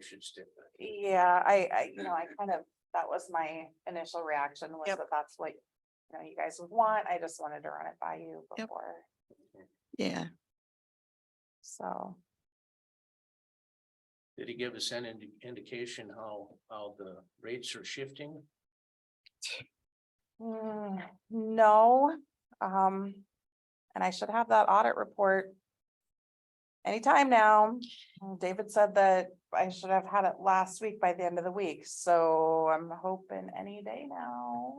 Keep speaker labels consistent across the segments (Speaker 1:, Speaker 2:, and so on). Speaker 1: should stick that.
Speaker 2: Yeah, I, I, you know, I kind of, that was my initial reaction was
Speaker 3: Yep.
Speaker 2: that that's what, you know, you guys would want. I just wanted to run it by you
Speaker 3: Yep.
Speaker 2: before,
Speaker 3: Yeah,
Speaker 2: so.
Speaker 1: Did he give us an indi- indication how, how the rates are shifting?
Speaker 2: Mm, No, um, and I should have that audit report. Anytime now. David said that I should have had it last week by the end of the week, so I'm hoping any day now.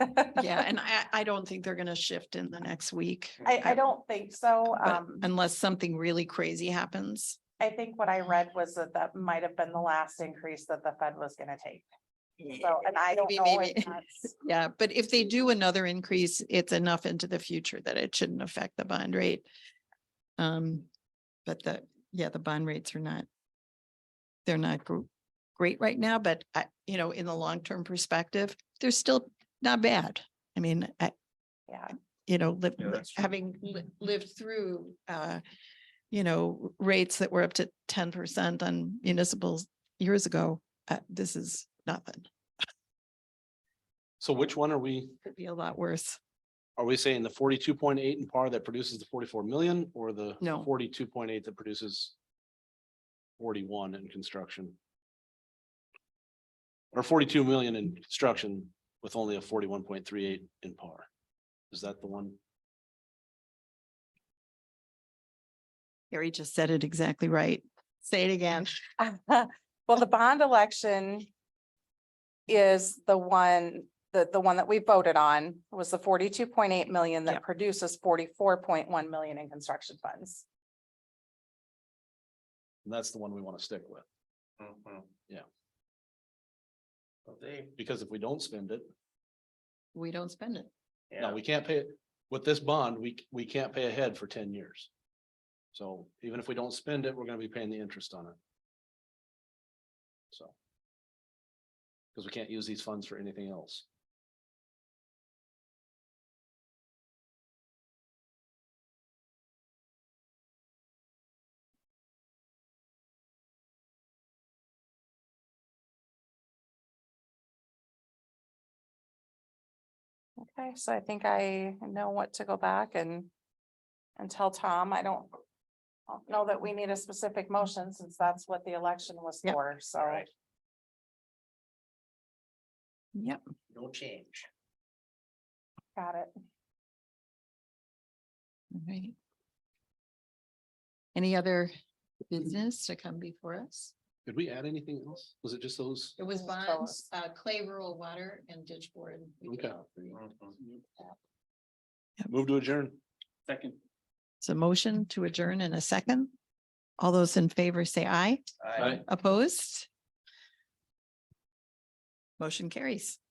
Speaker 3: yeah, and I, I don't think they're gonna shift in the next week.
Speaker 2: I, I don't think so.
Speaker 3: but
Speaker 2: Um,
Speaker 3: Unless something really crazy happens.
Speaker 2: I think what I read was that that might have been the last increase that the Fed was gonna take. So, and I don't
Speaker 3: Maybe,
Speaker 2: know if
Speaker 3: maybe.
Speaker 2: that's,
Speaker 3: Yeah, but if they do another increase, it's enough into the future that it shouldn't affect the bond rate. Um, but the, yeah, the bond rates are not. They're not gr- great right now, but I, you know, in the long-term perspective, they're still not bad. I mean, I,
Speaker 2: yeah,
Speaker 3: you know, live,
Speaker 1: Yeah,
Speaker 3: li-
Speaker 1: that's true.
Speaker 3: having li- lived through, uh, you know, rates that were up to ten percent on municipals years ago, uh, this is nothing.
Speaker 4: So which one are we,
Speaker 3: Could be a lot worse.
Speaker 4: are we saying the forty-two point eight in par that produces the forty-four million or the?
Speaker 3: No.
Speaker 4: Forty-two point eight that produces forty-one in construction? Or forty-two million in construction with only a forty-one point three eight in par? Is that the one?
Speaker 3: Gary just said it exactly right. Say it again.
Speaker 2: well, the bond election. Is the one, the, the one that we voted on was the forty-two point eight million that
Speaker 3: Yep.
Speaker 2: produces forty-four point one million in construction funds.
Speaker 4: That's the one we want to stick with,
Speaker 1: Mm-hmm.
Speaker 4: Yeah.
Speaker 1: Well, They,
Speaker 4: because if we don't spend it,
Speaker 3: We don't spend it.
Speaker 4: no,
Speaker 1: yeah,
Speaker 4: we can't pay it. With this bond, we, c- we can't pay ahead for ten years. So even if we don't spend it, we're gonna be paying the interest on it. So. Because we can't use these funds for anything else.
Speaker 2: Okay, so I think I know what to go back and. And tell Tom, I don't. I don't Know that we need a specific motion since that's what the election was
Speaker 3: Yep.
Speaker 2: for, so.
Speaker 1: all right,
Speaker 3: Yep.
Speaker 1: no change.
Speaker 2: Got it.
Speaker 3: Right. Any other business to come before us?
Speaker 4: Did we add anything else? Was it just those?
Speaker 3: It was
Speaker 2: Tell
Speaker 3: bonds, uh, clay, rural water and ditch board. We did
Speaker 4: Okay.
Speaker 3: all three.
Speaker 1: Mm-hmm.
Speaker 4: Move to adjourn.
Speaker 1: Second.
Speaker 3: It's a motion to adjourn in a second. All those in favor say aye. Opposed? Motion carries.